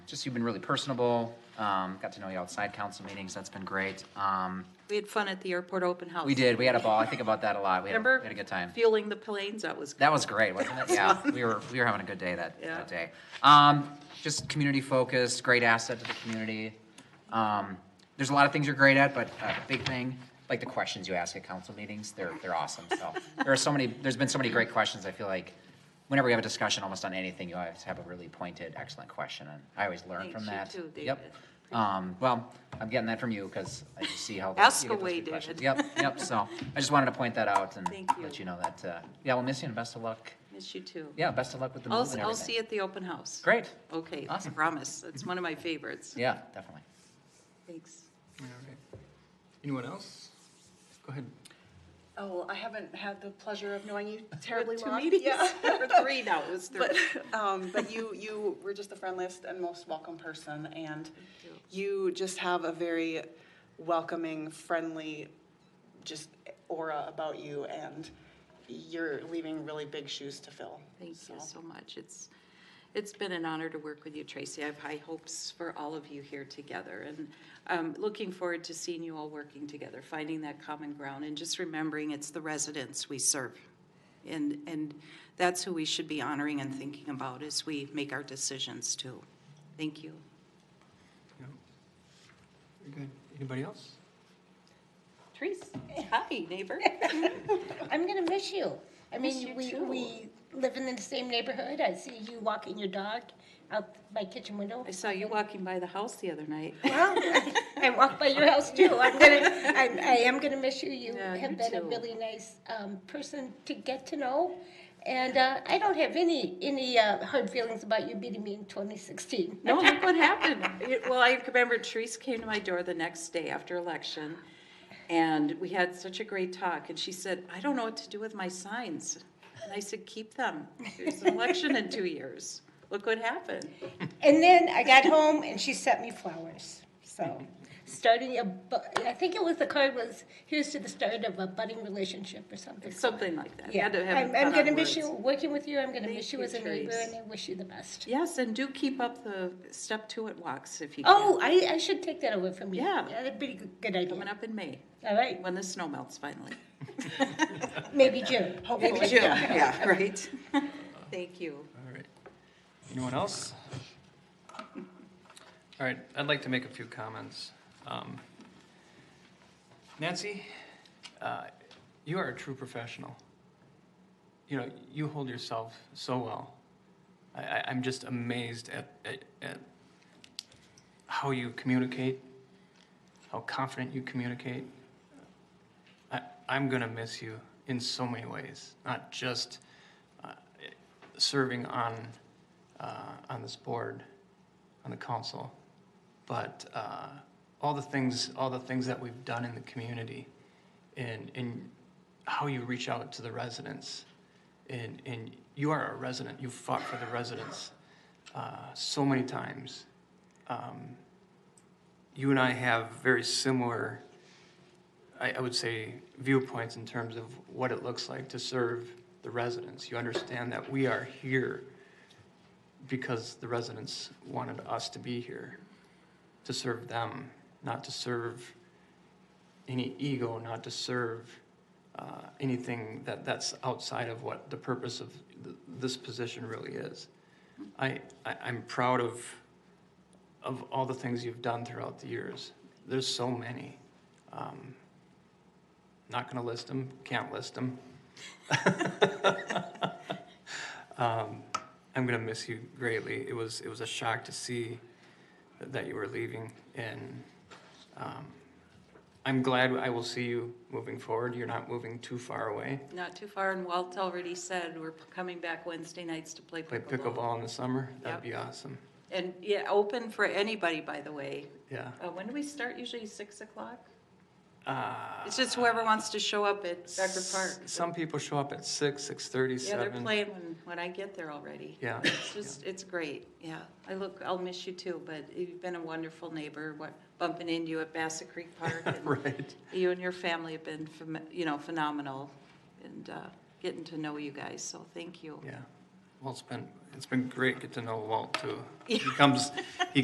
just you've been really personable. Um, got to know you outside council meetings. That's been great. Um, We had fun at the airport open house. we did. We had a ball. I think about that a lot. We had, a- Remember? we had a good time. Fueling the planes, that was, That was great, wasn't it? Yeah, we were, we were having a good day that, Yeah. that day. Um, just community focused, great asset to the community. Um, there's a lot of things you're great at, but a big thing, like the questions you ask at council meetings, they're, they're awesome, so. There are so many, there's been so many great questions, I feel like, whenever we have a discussion almost on anything, you always have a really pointed, excellent question, and I always learn Thanks, from you that. too, Yep. David. Um, well, I'm getting that from you, because I just see how. Ask you get those away, good questions. David. Yep, yep, so, I just wanted to point that out and Thank you. let you know that, uh, yeah, we'll miss you and best of luck miss you too. yeah, best of luck with the move I'll, and everything. I'll see you at the open house. Great, Okay, Awesome. promise. It's one of my favorites. yeah, definitely. Thanks. All right. Anyone else? Go ahead. Oh, I haven't had the pleasure of knowing you terribly Two long. meetings, Yeah. or three now, it was three. But, um, but you, you were just the friendliest and most welcome person, and you just have a very welcoming, friendly, just aura about you, and you're leaving really big shoes to fill. Thank you So, so much. It's, it's been an honor to work with you, Tracy. I have high hopes for all of you here together, and um looking forward to seeing you all working together, finding that common ground, and just remembering it's the residents we serve. And, and that's who we should be honoring and thinking about as we make our decisions, too. Thank you. No. Very good. Anybody else? Tracy, hi, neighbor. I'm gonna miss you. I Miss you mean, we, too. we live in the same neighborhood. I see you walking your dog out my kitchen window. I saw you walking by the house the other night. Well, I walk by your house too. I'm gonna, I, I am gonna miss you. You Yeah, you have been a too. really nice, um, person to get to know. And, uh, I don't have any, any, uh, hard feelings about you beating me in twenty sixteen. No, look what happened. It- Well, I remember Therese came to my door the next day after election, and we had such a great talk, and she said, I don't know what to do with my signs. And I said, keep them. There's an election in two years. Look what happened. And then I got home and she sent me flowers. So, starting a, bu- I think it was the card was, here's to the start of a budding relationship or something. Something like that. Yeah, Had to have it I'm, put I'm on gonna miss words. you, working with you, I'm gonna Thank miss you you, as a neighbor, Therese. and I wish you the best. Yes, and do keep up the step to it walks if you can. Oh, I, I should take that away from you. Yeah. That'd be a good- good Coming idea. up in May, All right, when the snow melts finally. maybe June. Hopefully. Maybe June, yeah, right. Thank you. All right. Anyone else? All right, I'd like to make a few comments. Um, Nancy, uh, you are a true professional. You know, you hold yourself so well. I, I, I'm just amazed at, at, at how you communicate, how confident you communicate. I, I'm gonna miss you in so many ways, not just uh, serving on uh, on this board, on the council, but uh, all the things all the things that we've done in the community, and and how you reach out to the residents, and and you are a resident. You fought for the residents uh, so many times. Um, you and I have very similar I, I would say viewpoints in terms of what it looks like to serve the residents. You understand that we are here because the residents wanted us to be here, to serve them, not to serve any ego, not to serve uh, anything that, that's outside of what the purpose of th- this position really is. I, I, I'm proud of, of all the things you've done throughout the years. There's so many. Um, not going to list them, can't list them. um, I'm going to miss you greatly. It was it was a shock to see that you were leaving, and um, I'm glad I will see you moving forward. You're not moving too far away. Not too far, and Walt already said we're coming back Wednesday nights to play Play pickleball. pickleball in the summer. Yep. That'd be awesome. And, yeah, open for anybody, by the way. Yeah. Uh, when do we start? Usually six o'clock? Uh, It's just whoever wants to show up at Becker Park. Some people show up at six, six thirty, Yeah, they're seven. playing when, when I get there already. Yeah. It's just, it's great, yeah. I look, I'll miss you too, but you've been a wonderful neighbor, what, bumping into you at Bassett Creek Park. and Right. You and your family have been, phem- you know, phenomenal, and, uh, getting to know you guys, so thank you. Yeah. Walt's been, it's been great get to know Walt too. He comes, he